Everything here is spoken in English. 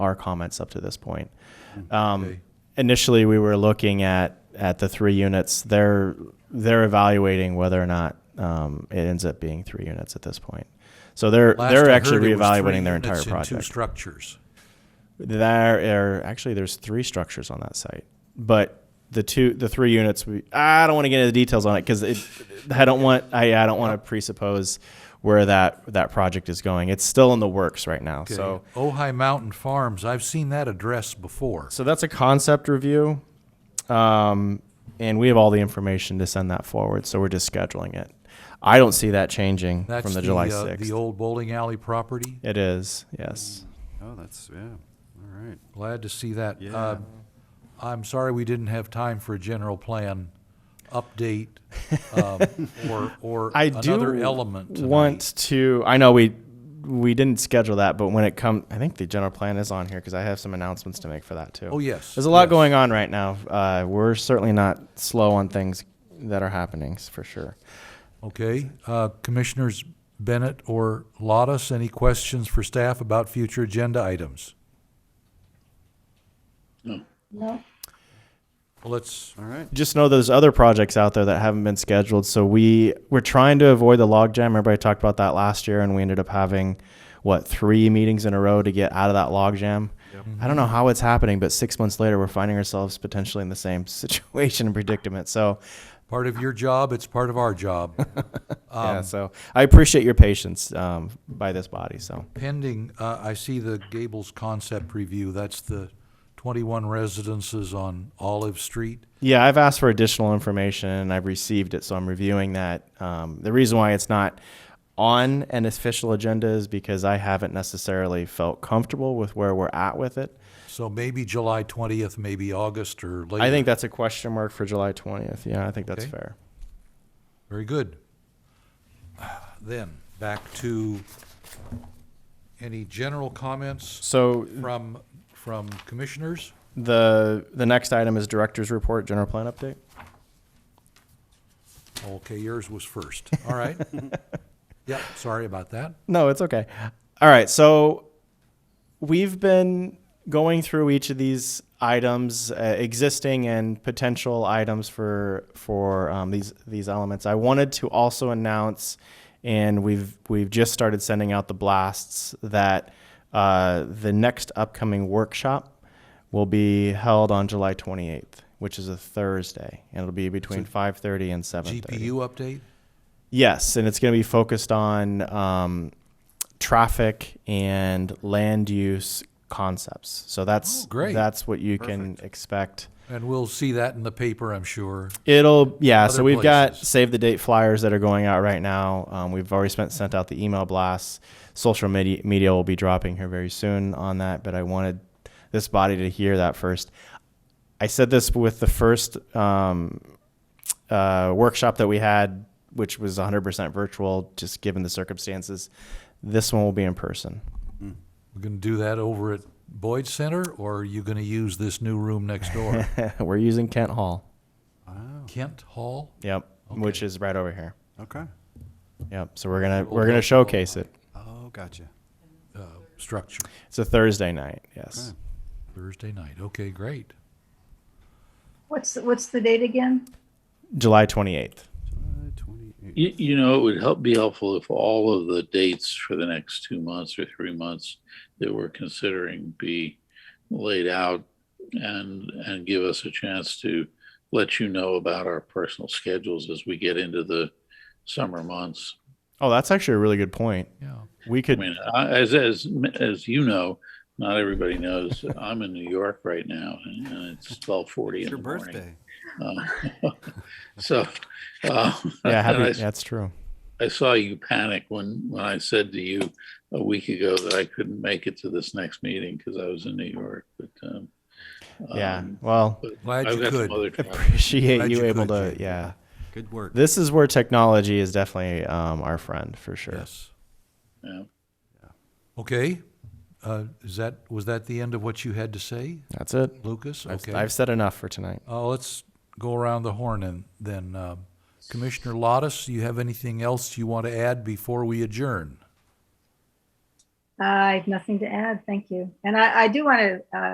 our comments up to this point. Hmm. Um, initially, we were looking at, at the three units. They're, they're evaluating whether or not, um, it ends up being three units at this point. So they're, Last they're I actually heard, it was three reevaluating their entire units and Two project. structures. There are, actually, there's three structures on that site, but the two, the three units, we, I don't want to get into the details on it because it, I don't want, I, I don't want to presuppose where that, that project is going. It's still in the works right now, Okay. so. Ojai Mountain Farms, I've seen that address before. So that's a concept review. Um, and we have all the information to send that forward. So we're just scheduling it. I don't see that changing That's from the, July uh, 6th. The old Mm. bowling alley property. it is, yes. Oh, that's, yeah, all right. Glad to see that. Yeah. Uh, I'm sorry we didn't have time for a general plan update, um, or, or I another do element tonight. want to. I know we we didn't schedule that, but when it comes, I think the general plan is on here because I have some announcements to make for that too. Oh, yes, there's a lot yes. going on right now. Uh, we're certainly not slow on things that are happening s- for sure. Okay, uh, Commissioners Bennett or Lottis, any questions for staff about future agenda items? No. No. Let's, All right. just know there's other projects out there that haven't been scheduled. So we we're trying to avoid the logjam. Remember I talked about that last year, and we ended up having what three meetings in a row to get out of that logjam. I don't know how it's happening, but six months later, we're finding ourselves potentially in the same situation and predicament. So part of your job, it's part of our job. yeah, so I appreciate your patience um, by this body. So Pending, uh, I see the Gables concept review, that's the twenty-one residences on Olive Street. yeah, I've asked for additional information, and I've received it. So I'm reviewing that. Um, the reason why it's not on an official agenda is because I haven't necessarily felt comfortable with where we're at with it. So maybe July twentieth, maybe August or later. I think that's a question mark for July 20th. Yeah, I think that's Okay. fair. Very good. Then, back to any general comments So from, from commissioners? the the next item is director's report, general plan update. Okay, yours was first, all right? Yeah, sorry about that. No, it's okay. All right, so we've been going through each of these items, uh, existing and potential items for for um, these these elements. I wanted to also announce, and we've we've just started sending out the blasts that uh, the next upcoming workshop will be held on July 28th, which is a Thursday, and it'll be between 5:30 and 7:30. GPU update? Yes, and it's going to be focused on um, traffic and land use concepts. So that's Oh, great. That's what you can expect. And we'll see that in the paper, I'm sure. It'll yeah. so Other we've got places. save the date flyers that are going out right now. Um, we've already spent sent out the email blasts. Social media media will be dropping here very soon on that. But I wanted this body to hear that first. I said this with the first um, uh, workshop that we had, which was 100% virtual, just given the circumstances. This one will be in person. We're gonna do that over at Boyd Center, or are you gonna use this new room next door? We're using Kent Hall. Kent Hall? Yep, which is right over here. Okay. Yep. So we're gonna we're gonna showcase it. Oh, gotcha. uh, structure. It's a Thursday night. Yes. Thursday night. Okay, great. What's, the- what's the date again? July 28th. July 28. You, you know, it would help be helpful if all of the dates for the next two months or three months that we're considering be laid out and and give us a chance to let you know about our personal schedules as we get into the summer months. Oh, that's actually a really good point. Yeah. We I could. mean, I, as as as you know, not everybody knows I'm in New York right now, and, and it's 12:40 It's in your the morning. birthday. Uh, so, uh, yeah, and I happy, that's true. I saw you panic when, when I said to you a week ago that I couldn't make it to this next meeting because I was in New York, but, um. yeah. um, Well, but Glad I've you got some could. other travel. appreciate glad you you able could, to. Jay. Yeah. Good work. This is where technology is definitely um, our friend for sure. Yes. Yeah. Okay. Uh, is that was that the end of what you had to say, That's it. Lucas? I've, Okay. I've said enough for tonight. Uh, let's go around the horn and then um, Commissioner Lottis, you have anything else you want to add before we adjourn? I have nothing to add. Thank you. And I, I do want to, uh,